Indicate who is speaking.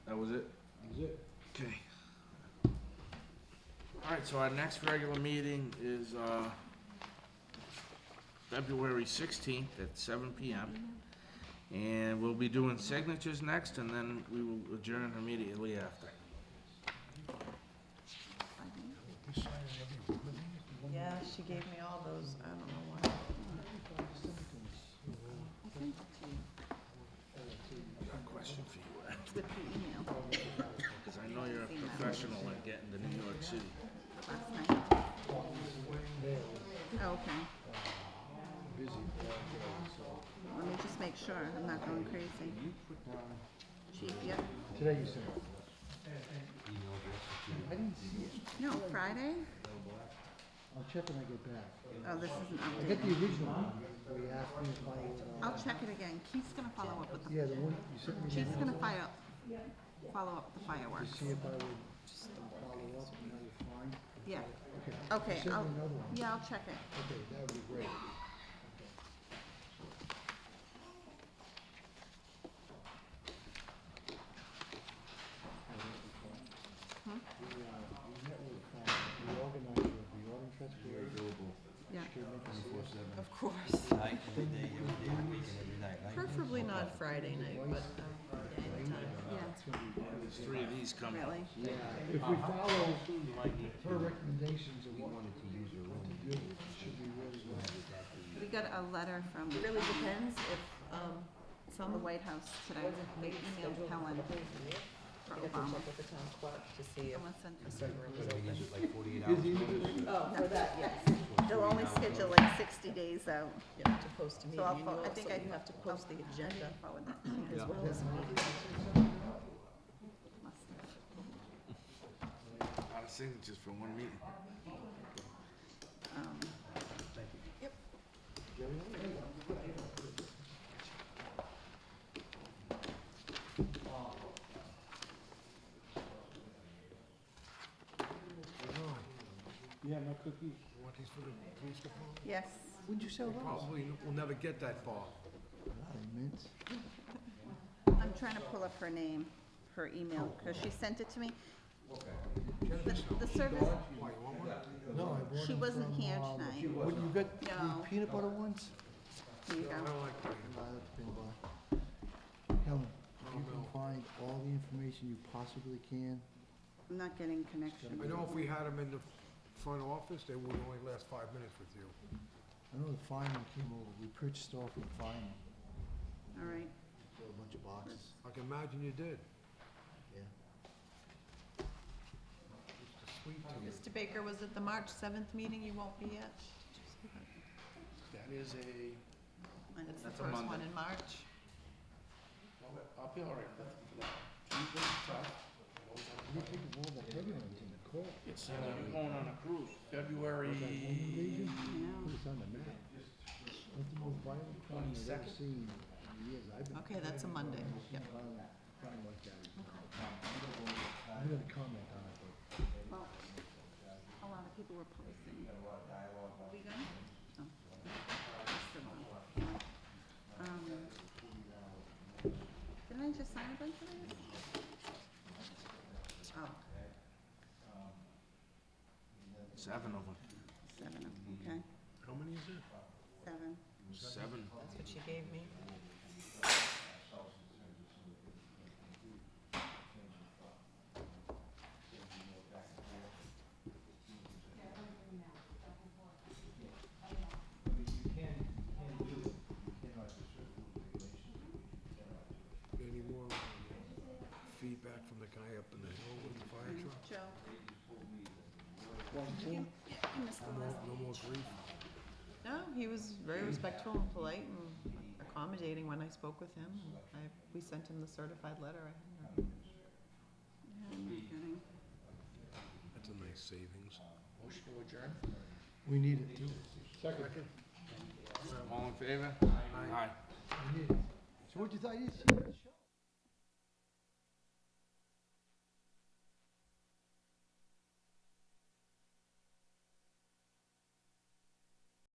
Speaker 1: was it?
Speaker 2: That's it.
Speaker 1: Okay. All right, so our next regular meeting is uh, February 16th at seven PM. And we'll be doing signatures next, and then we will adjourn immediately after.
Speaker 3: Yeah, she gave me all those, I don't know why.
Speaker 1: Question for you,
Speaker 4: It's with the email
Speaker 1: because I know you're a professional at getting to New York City.
Speaker 4: last night. Oh, Okay. Let me just make sure I'm not going crazy. Chief, yep.
Speaker 2: Today you sent it.
Speaker 4: No, Friday?
Speaker 2: I'll check when I get back.
Speaker 4: Oh, this is an
Speaker 2: I
Speaker 4: update.
Speaker 2: got the original one where you asked me if I, uh,
Speaker 4: I'll check it again. Keith's gonna follow up with the,
Speaker 2: yeah, the one you sent me, to
Speaker 4: Keith's gonna file, follow up with the fireworks.
Speaker 2: see if I would follow up and how you find.
Speaker 4: Yeah,
Speaker 2: Okay,
Speaker 4: okay,
Speaker 2: send me
Speaker 4: I'll,
Speaker 2: another one.
Speaker 4: yeah, I'll check it.
Speaker 2: okay, that would be great.
Speaker 4: Hmm?
Speaker 2: We, uh, we met with, uh, the organizer of the organ festival.
Speaker 4: Yeah,
Speaker 2: She came in to see us.
Speaker 3: Of course.
Speaker 5: Night, every day, every day, week and every night, night.
Speaker 3: Preferably not Friday night, but um, yeah, anytime.
Speaker 4: yeah,
Speaker 1: There's three of these coming.
Speaker 4: really.
Speaker 2: If we follow
Speaker 4: Uh-huh.
Speaker 2: her recommendations of what to do, should be really well.
Speaker 4: We got a letter from
Speaker 3: It really depends if, um,
Speaker 4: from the
Speaker 3: some,
Speaker 4: White House today.
Speaker 3: wasn't
Speaker 4: They
Speaker 3: made
Speaker 4: emailed
Speaker 3: scheduled
Speaker 4: Helen for
Speaker 3: we have to
Speaker 4: Obama.
Speaker 3: check with the town clerk to see if
Speaker 4: Someone sent us
Speaker 3: the room is
Speaker 5: Is
Speaker 3: open.
Speaker 5: it like forty-eight hours notice?
Speaker 3: Oh, for that, yes,
Speaker 4: They'll only schedule like sixty days out.
Speaker 3: you have to post a meeting,
Speaker 4: So I'll,
Speaker 3: you
Speaker 4: fo- I
Speaker 3: also
Speaker 4: think I.
Speaker 3: you have to post the
Speaker 4: I'll
Speaker 3: agenda
Speaker 4: Forward that to you.
Speaker 3: as well as a meeting.
Speaker 4: Must have.
Speaker 1: A lot of signatures for one meeting.
Speaker 4: Um,
Speaker 2: Yeah, my cookies.
Speaker 4: Yes,
Speaker 2: Would you sell those?
Speaker 6: Probably will never get that far.
Speaker 2: Mint.
Speaker 4: I'm trying to pull up her name, her email,
Speaker 3: Oh.
Speaker 4: because she sent it to me. The, the service,
Speaker 2: No, I bought
Speaker 4: she
Speaker 2: them
Speaker 4: wasn't
Speaker 2: from,
Speaker 4: here
Speaker 2: uh,
Speaker 4: tonight.
Speaker 2: What, you got
Speaker 4: No.
Speaker 2: the peanut butter ones?
Speaker 4: There you go.
Speaker 2: No, that's peanut butter. Helen, if you can find all the information you possibly can.
Speaker 4: I'm not getting connection.
Speaker 6: I know if we had them in the front office, they would only last five minutes with you.
Speaker 2: I know the Feynman came over, we purchased off of Feynman,
Speaker 4: All right.
Speaker 2: for a bunch of boxes,
Speaker 6: I can imagine you did.
Speaker 2: yeah.
Speaker 6: It's a sweet tooth.
Speaker 3: Mr. Baker, was it the March seventh meeting you won't be at?
Speaker 1: That is a,
Speaker 3: It's the
Speaker 1: That's a
Speaker 3: first one
Speaker 1: Monday.
Speaker 3: in March.
Speaker 1: I'll be all right with that.
Speaker 2: You think of all the heavy ones in the car,
Speaker 1: It's, uh, I'm going on a cruise, February
Speaker 2: put it on the map. That's the most violent crime I've ever seen in years, I've been.
Speaker 3: Okay, that's a Monday, yep.
Speaker 2: violent crime like that. I'm gonna comment on it, but.
Speaker 4: Well, a lot of people were posting. We good? Oh. Still on. Um, Did I just sign a bunch of these? Oh,
Speaker 1: Seven of them.
Speaker 4: seven, of 'em, okay,
Speaker 6: How many is it?
Speaker 4: seven.
Speaker 1: Seven.
Speaker 3: That's what she gave me.
Speaker 6: Any more uh, feedback from the guy up in the hill with the fire truck?
Speaker 4: Joe? Yeah, I missed the last.
Speaker 6: No more grief?
Speaker 3: No, he was very respectful and polite and accommodating when I spoke with him. and I, we sent him the certified letter. I had no-
Speaker 4: Yeah, I'm not getting.
Speaker 6: That's a nice savings.
Speaker 1: Motion to adjourn?
Speaker 2: We need it too.
Speaker 6: Second.
Speaker 1: All in favor? Aye.
Speaker 2: We need it. So what you thought, you should-